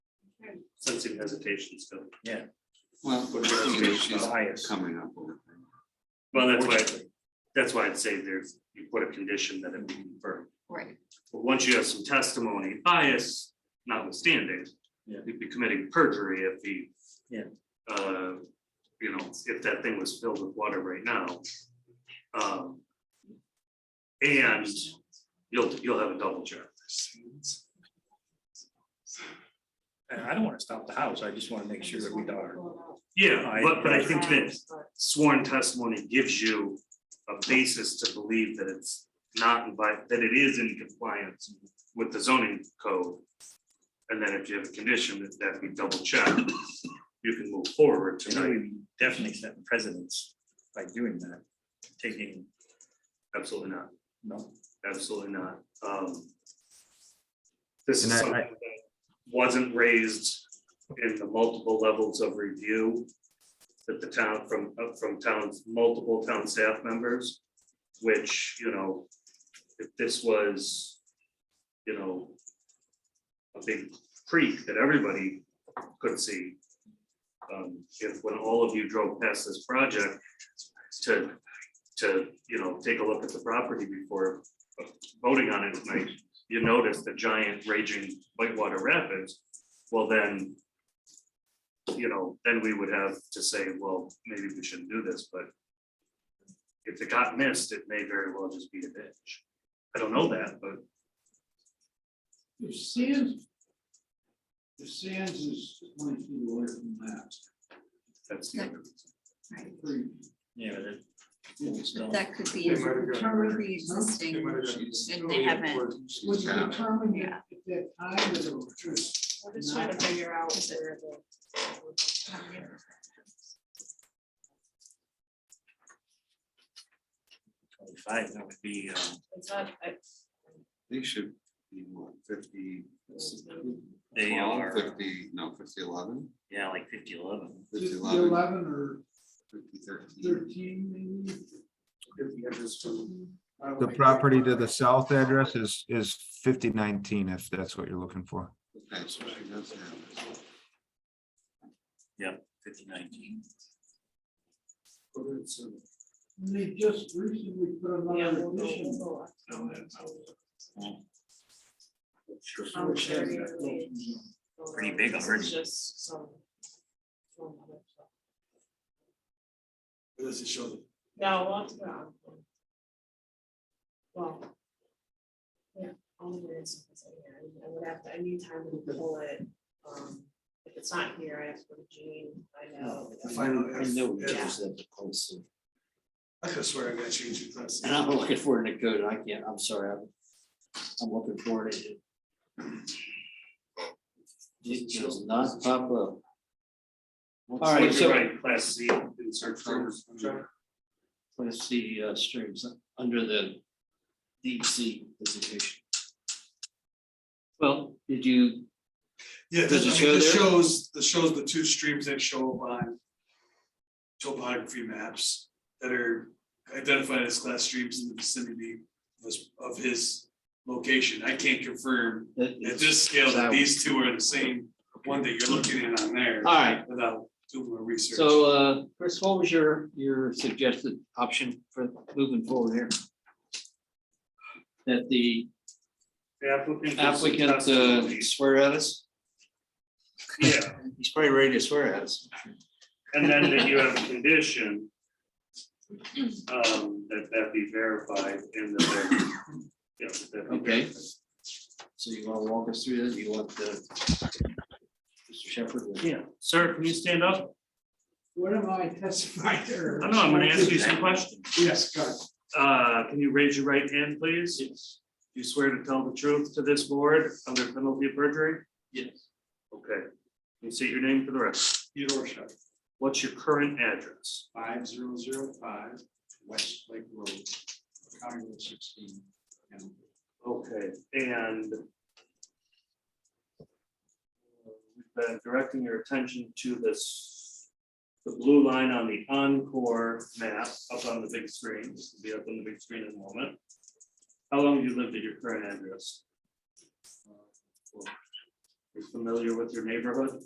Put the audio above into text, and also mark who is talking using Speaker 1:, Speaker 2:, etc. Speaker 1: sensing hesitation still.
Speaker 2: Well,
Speaker 1: What about
Speaker 2: you know,
Speaker 1: the
Speaker 2: she's
Speaker 1: highest?
Speaker 2: coming up with.
Speaker 1: Well, that's why, that's why I'd say there's, you put a condition that it be confirmed.
Speaker 3: Right.
Speaker 1: But once you have some testimony bias notwithstanding,
Speaker 4: Yeah.
Speaker 1: you'd be committing perjury if the.
Speaker 4: Yeah.
Speaker 1: Uh, you know, if that thing was filled with water right now. Um. And you'll, you'll have a double check.
Speaker 4: And I don't wanna stop the house, I just wanna make sure that we are.
Speaker 1: Yeah,
Speaker 4: I-
Speaker 1: but, but I think that sworn testimony gives you a basis to believe that it's not, in vi- that it is in compliance with the zoning code. And then if you have a condition that that we double check, you can move forward
Speaker 4: And then
Speaker 1: tonight,
Speaker 4: we definitely set precedence by doing that, taking,
Speaker 1: absolutely not,
Speaker 4: no,
Speaker 1: absolutely not, um. This is
Speaker 5: And I- I-
Speaker 1: something that wasn't raised in the multiple levels of review. That the town from, uh, from towns, multiple town staff members, which, you know, if this was, you know. A big creek that everybody could see. Um, if when all of you drove past this project to, to, you know, take a look at the property before voting on it tonight. You notice the giant raging whitewater rapids, well then. You know, then we would have to say, well, maybe we shouldn't do this, but if it got missed, it may very well just be a ditch. I don't know that, but
Speaker 6: If Sands, if Sands is twenty feet away from that,
Speaker 1: that's the other reason.
Speaker 6: pretty,
Speaker 4: yeah, that. it's
Speaker 3: But
Speaker 4: not-
Speaker 3: that could be a
Speaker 7: They might have gotten rid of it. They
Speaker 3: pre-existing,
Speaker 7: might have gotten
Speaker 6: She's-
Speaker 7: rid
Speaker 3: and
Speaker 7: of
Speaker 3: they
Speaker 7: it.
Speaker 3: haven't-
Speaker 6: would
Speaker 2: She's down.
Speaker 6: determine if
Speaker 3: Yeah.
Speaker 6: if that time is over.
Speaker 8: We're just trying to figure out where the.
Speaker 4: Twenty-five, that would be, um,
Speaker 8: It's not, I,
Speaker 2: They should be what, fifty?
Speaker 4: they
Speaker 2: 12,
Speaker 4: are,
Speaker 2: Fifty, no, fifty eleven,
Speaker 4: yeah, like fifty eleven.
Speaker 2: fifty
Speaker 6: Just
Speaker 2: eleven,
Speaker 6: Eleven or
Speaker 2: fifty thirteen.
Speaker 6: thirteen maybe.
Speaker 7: If we have this one.
Speaker 6: I don't
Speaker 5: The
Speaker 6: like-
Speaker 5: property to the south address is, is fifty nineteen, if that's what you're looking for.
Speaker 2: Okay, so she does have it.
Speaker 4: Fifty nineteen.
Speaker 7: but it's, uh,
Speaker 6: They just recently put another addition.
Speaker 7: no, that's how it is.
Speaker 8: I'm sure you really-
Speaker 4: Pretty big
Speaker 8: This is
Speaker 4: already.
Speaker 8: Just some. some other stuff.
Speaker 7: But Does it show the
Speaker 8: No, lots of. that. Well. Yeah, all the weird stuff is in here, I- I would have to, I need time to pull it, um, if it's not here, I have to go to Jean, I know.
Speaker 7: the final.
Speaker 9: I know we
Speaker 7: F- F-
Speaker 9: just said the close,
Speaker 7: I could swear I got changed your class.
Speaker 9: and I'm looking for it in the code, and I can't, I'm sorry, I'm, I'm looking for it. It it does not pop up. All right,
Speaker 1: Would you
Speaker 9: so,
Speaker 1: write class C in search for?
Speaker 9: let's see, uh, streams, under the DC designation. Well, did you,
Speaker 7: Yeah,
Speaker 9: Does it
Speaker 7: I mean,
Speaker 9: show
Speaker 7: this
Speaker 9: there?
Speaker 7: shows, this shows the two streams that show up on topography maps that are identified as class streams in the vicinity of his- of his location. I can't confirm
Speaker 9: that
Speaker 7: at
Speaker 9: it's-
Speaker 7: this scale
Speaker 9: that
Speaker 7: that
Speaker 9: one.
Speaker 7: these two are the same, one that you're looking at on there
Speaker 9: all right,
Speaker 7: without doing more research.
Speaker 9: so, uh, Chris, what was your, your suggested option for moving forward here? That the
Speaker 1: The applicant. gives some
Speaker 9: applicant uh,
Speaker 1: testimony.
Speaker 9: swear at us?
Speaker 1: Yeah,
Speaker 9: He's probably ready to swear at us.
Speaker 1: and then that you have a condition. Um, that that be verified in the. Yeah. that be
Speaker 9: Okay.
Speaker 1: verified.
Speaker 9: So you wanna walk us through this? You want the Mr. Shepherd? to-
Speaker 1: Yeah, sir, can you stand up?
Speaker 6: What am I testifying
Speaker 1: I
Speaker 6: or?
Speaker 1: know, I'm gonna ask you some questions.
Speaker 6: Yes, God.
Speaker 1: Uh, can you raise your right hand, please? Yes. You swear to tell the truth to this board under penalty of perjury?
Speaker 9: Yes.
Speaker 1: Okay. Can You say your name for the rest.
Speaker 7: Theodore Shep,
Speaker 1: What's your current address?
Speaker 7: five zero zero five, West Lake Road, County Road sixteen. and
Speaker 1: Okay, and uh, we've been directing your attention to this, the blue line on the Encore map up on the big screen, this will be up on the big screen in a moment. How long have Uh, you lived at your current address? You're familiar with your neighborhood?